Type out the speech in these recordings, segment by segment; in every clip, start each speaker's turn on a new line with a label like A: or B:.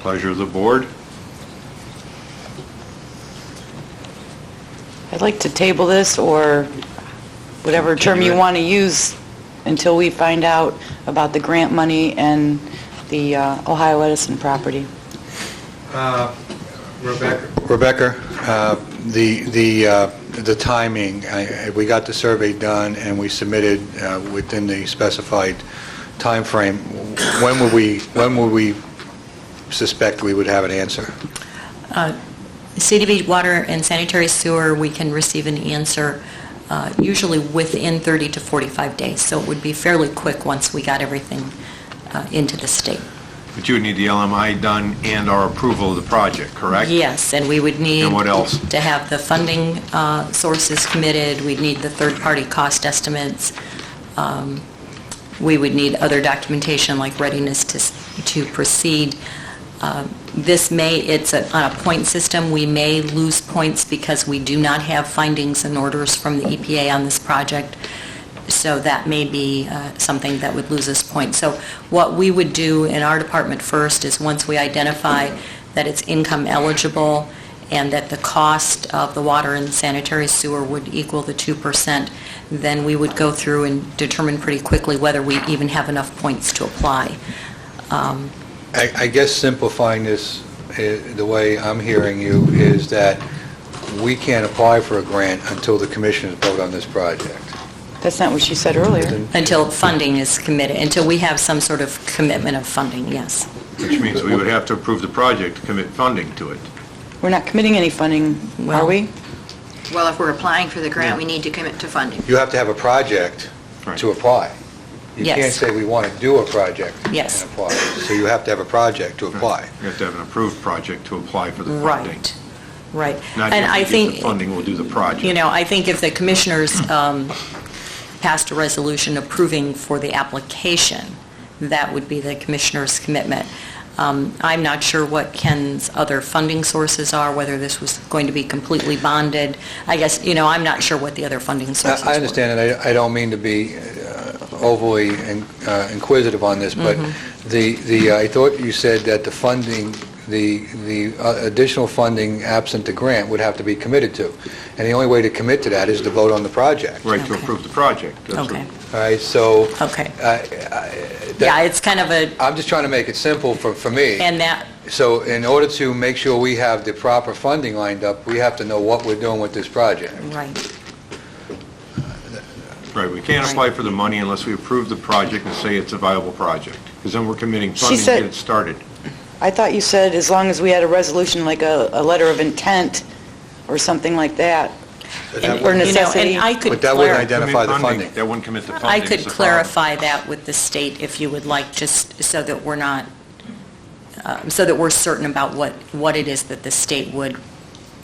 A: Pleasure of the board.
B: I'd like to table this, or whatever term
A: Continue
B: you
A: it.
B: want to use, until we find out about the grant money and the uh, Ohio Edison property.
C: Rebecca,
D: Rebecca, uh, the the uh, the timing, I- I- we got the survey done, and we submitted uh, within the specified timeframe. When would we, when would we suspect we would have an answer?
E: CDB water and sanitary sewer, we can receive an answer uh, usually within 30 to 45 days, so it would be fairly quick once we got everything uh, into the state.
A: But you would need the LMI done and our approval of the project, correct?
E: Yes, and we would need...
A: And what else?
E: To have the funding uh, sources committed, we'd need the third-party cost estimates, Um, we would need other documentation like readiness to s- to proceed. Uh, This may, it's a- on a point system, we may lose points because we do not have findings and orders from the EPA on this project, so that may be uh, something that would lose us points. So what we would do in our department first is, once we identify that it's income eligible and that the cost of the water and sanitary sewer would equal the 2%, then we would go through and determine pretty quickly whether we even have enough points to apply. Um,
D: I I guess simplifying this, eh, the way I'm hearing you, is that we can't apply for a grant until the commissioners vote on this project.
B: That's not what she said earlier.
E: Until funding is committed, until we have some sort of commitment of funding, yes.
A: Which means we would have to approve the project to commit funding to it.
B: We're not committing any funding, are
E: Well-
B: we?
F: Well, if we're applying for the grant, we need to commit to funding.
D: You have to have a project
A: Right.
D: to apply. You
E: Yes.
D: can't say we want to do a project and
E: Yes.
D: apply. So you have to have a project to apply.
A: You have to have an approved project to apply for the funding.
E: Right, right.
A: Not
E: And I
A: just we get
E: think,
A: the funding, we'll do the project.
E: you know, I think if the commissioners um, passed a resolution approving for the application, that would be the commissioner's commitment. Um, I'm not sure what Ken's other funding sources are, whether this was going to be completely bonded. I guess, you know, I'm not sure what the other funding sources were.
D: I I understand, and I I don't mean to be uh, overly in- uh, inquisitive on this, but
E: Mm-hmm.
D: the, the I thought you said that the funding, the the uh, additional funding absent the grant would have to be committed to. And the only way to commit to that is to vote on the project.
A: Right, to
E: Okay.
A: approve the project. That's what-
E: Okay,
D: All right, so
E: okay.
D: that-
E: Yeah, it's kind of a,
D: I'm just trying to make it simple for for me.
E: and that,
D: So in order to make sure we have the proper funding lined up, we have to know what we're doing with this project.
E: right,
A: Right, we can't apply for the money unless we approve the project and say it's a viable project, because then we're committing
B: She
A: funding to
B: said-
A: get it started.
B: I thought you said as long as we had a resolution, like a, a letter of intent or something like that, or
E: you know,
B: necessity.
E: and I could
D: But that wouldn't
E: clarify.
D: identify the funding.
A: That wouldn't commit the funding.
E: I
A: is
E: could
A: the problem.
E: clarify that with the state if you would like, just so that we're not, um, so that we're certain about what, what it is that the state would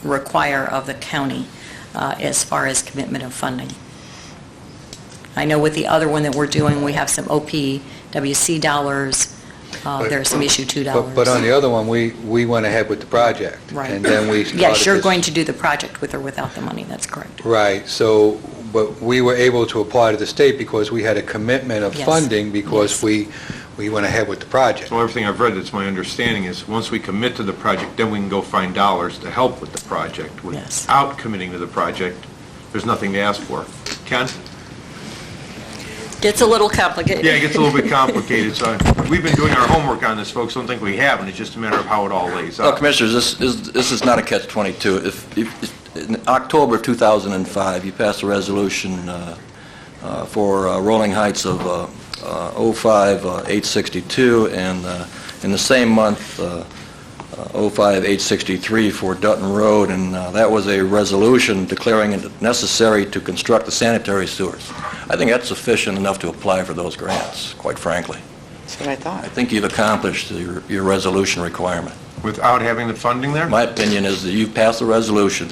E: require of the county uh, as far as commitment of funding. I know with the other one that we're doing, we have some OPWC dollars, uh,
D: But-
E: there are some issue 2 dollars.
D: But but on the other one, we we went ahead with the project.
E: Right.
D: And then we started
E: Yes, you're
D: this-
E: going to do the project with or without the money, that's correct.
D: Right, so, but we were able to apply to the state because we had a commitment of
E: Yes.
D: funding because
E: Yes.
D: we we went ahead with the project.
A: So everything I've read, it's my understanding is, once we commit to the project, then we can go find dollars to help with the project.
E: Yes.
A: Without committing to the project, there's nothing to ask for. Ken?
E: Gets a little complicated.
A: Yeah, it gets a little bit complicated, so we've been doing our homework on this, folks, don't think we haven't, it's just a matter of how it all lays
G: Well,
A: out.
G: Oh, Commissioners, this is, this is not a catch-22. If, if, if- in October 2005, you passed a resolution uh, uh, for uh, Rolling Heights of uh, uh, 05, uh, 862, and uh, in the same month, uh, uh, 05, 863 for Dutton Road, and uh, that was a resolution declaring it necessary to construct the sanitary sewers. I think that's sufficient enough to apply for those grants, quite frankly.
B: That's what I thought.
G: I think you've accomplished your, your resolution requirement.
A: Without having the funding there?
G: My opinion is that you've passed a resolution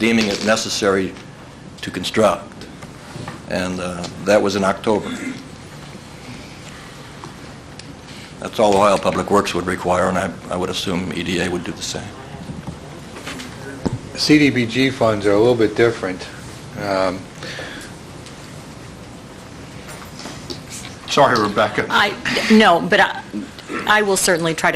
G: deeming it necessary to construct, and uh, that was in October. That's all Ohio Public Works would require, and I I would assume EDA would do the same.
D: CDBG funds are a little bit different. Um,
A: Sorry, Rebecca.
E: I, no, but I, I will certainly try to.